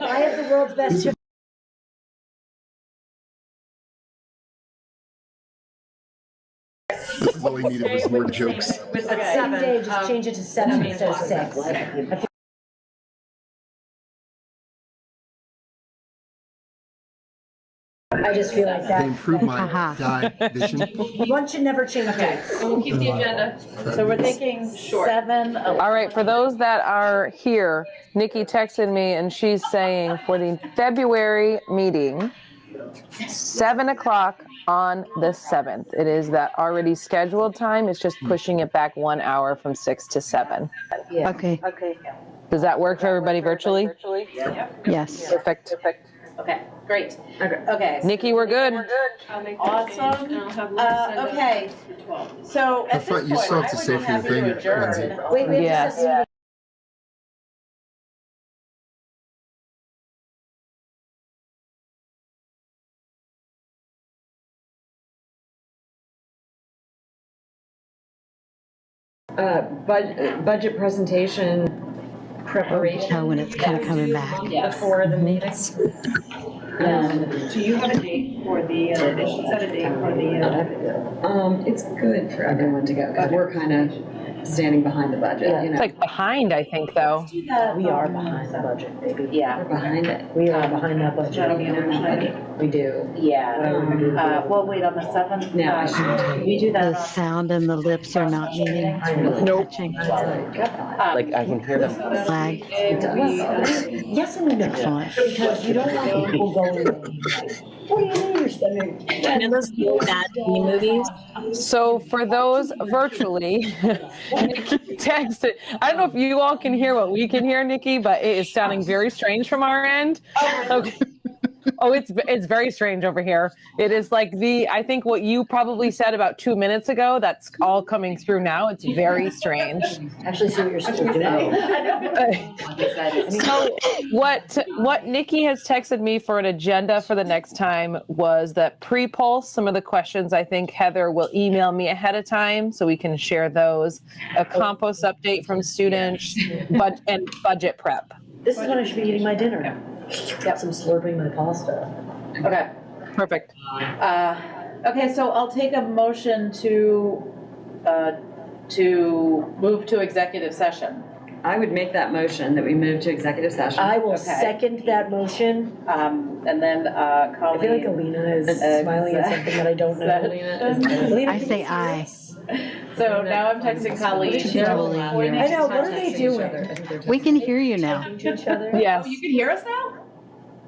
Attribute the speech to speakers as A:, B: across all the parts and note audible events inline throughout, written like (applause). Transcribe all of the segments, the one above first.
A: world's best
B: This is all he needed was more jokes.
C: With the
A: same day,
C: seven,
A: just
C: um,
A: change it to seven instead of six. I just feel like
B: They
A: that,
B: improve my die vision.
A: one should never change
C: okay,
A: dates.
C: so we'll keep the agenda.
D: So we're thinking
C: Sure.
D: seven, eleven.
E: All right, for those that are here, Nikki texted me and she's saying for the February meeting, seven o'clock on the seventh. It is that already scheduled time. It's just pushing it back one hour from six to seven.
F: Okay,
G: Okay,
E: Does that work for everybody virtually?
F: yes.
E: Perfect.
C: Okay, great. Okay.
E: Nikki, we're good.
D: Awesome. Uh, okay. So
B: I
D: at this
B: thought
D: point,
B: you still have
D: I
B: to
D: would
B: say
D: be
B: for your
D: happy
B: thing,
D: to
B: Lindsay.
D: adjourn.
A: Wait, wait,
E: Yes.
A: just a second.
H: Uh, bud- budget presentation preparation.
F: Oh, when it's kinda
H: that we
F: coming
H: do
F: back.
H: month Before
A: Mm-hmm.
H: the meetings. Um,
C: Do you have a date for the, uh, they should set a date for the, uh,
H: um, it's good for everyone to go, because we're kind of standing behind the budget, you
E: It's
H: know.
E: like behind, I think, though.
A: We are behind the budget, baby.
C: yeah,
H: We're behind it.
A: We are behind that budget.
C: that'll be an action item.
H: We do.
C: Yeah.
H: Um,
C: Uh, well, wait, on the seventh?
H: No, I
C: uh,
H: shouldn't.
C: We do
F: The
C: that
F: sound and the lips are not meeting.
H: Nope.
F: Touching.
D: Uh,
C: on.
I: Like, I can hear them.
C: um,
F: Flag.
C: we, uh,
A: Yes and no,
F: Excellent.
A: because you don't want people going, what do you mean you're spending?
E: So for those virtually, (laughs) Nikki texted. I don't know if you all can hear what we can hear, Nikki, but it is sounding very strange from our end. Okay. Oh, it's it's very strange over here. It is like the I think what you probably said about two minutes ago. That's all coming through now. It's very strange.
A: Actually, see what you're supposed to do.
E: So what what Nikki has texted me for an agenda for the next time was that pre-pulse some of the questions I think Heather will email me ahead of time so we can share those. A compost update from students, but and budget prep.
A: This is when I should be eating my dinner. Got some slurping my pasta.
D: Okay.
E: Perfect.
D: Uh, Okay, so I'll take a motion to, uh, to move to executive session.
H: I would make that motion that we move to executive session.
A: I will
D: Okay.
A: second that motion.
D: Um, And then uh,
A: I feel like
D: Colleen.
A: Alina is smiling at something that I don't (laughs) know. Alina,
F: I
A: can
F: say
A: you see
F: aye.
A: this?
D: So now I'm texting Colleen.
F: She's totally
D: Avoiding-
A: I know, what are they doing?
F: We can hear you now.
A: Talking to each other.
D: Oh,
E: Yes.
D: you can hear us now?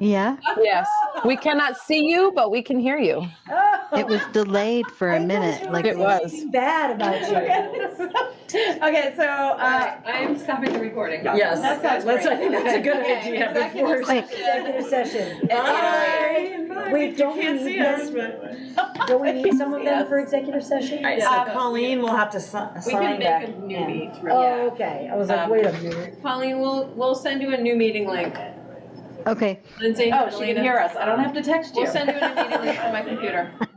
F: Yeah,
E: Yes. We cannot see you, but we can hear you.
A: Oh.
F: it was delayed for a minute, like
E: It was.
A: Something Bad about you.
D: (laughs) Okay, so uh,
C: I'm stopping the recording.
H: Yes.
D: That's- that's
H: Let's- I think that's a good
D: Okay, (laughs)
H: idea.
D: executive
H: before-
F: quick.
A: Executive
E: (laughs)
A: session.
D: Bye.
A: Wait, don't we
D: can't
A: need
D: see us,
A: them? Don't we need some
E: (laughs)
A: of them for executive session?
H: Right,
D: Yeah.
H: so Colleen will have to si-
C: We can
H: sign
C: make a
H: back.
C: new meet,
A: Oh,
C: yeah.
A: okay. I was like,
C: Um,
A: wait a minute.
C: Colleen, we'll, we'll send you a new meeting link.
F: Okay,
C: Lindsay,
D: oh, she can
C: Elena.
D: hear us. I don't have to text you. (laughs)
C: We'll send you a new meeting link on my computer.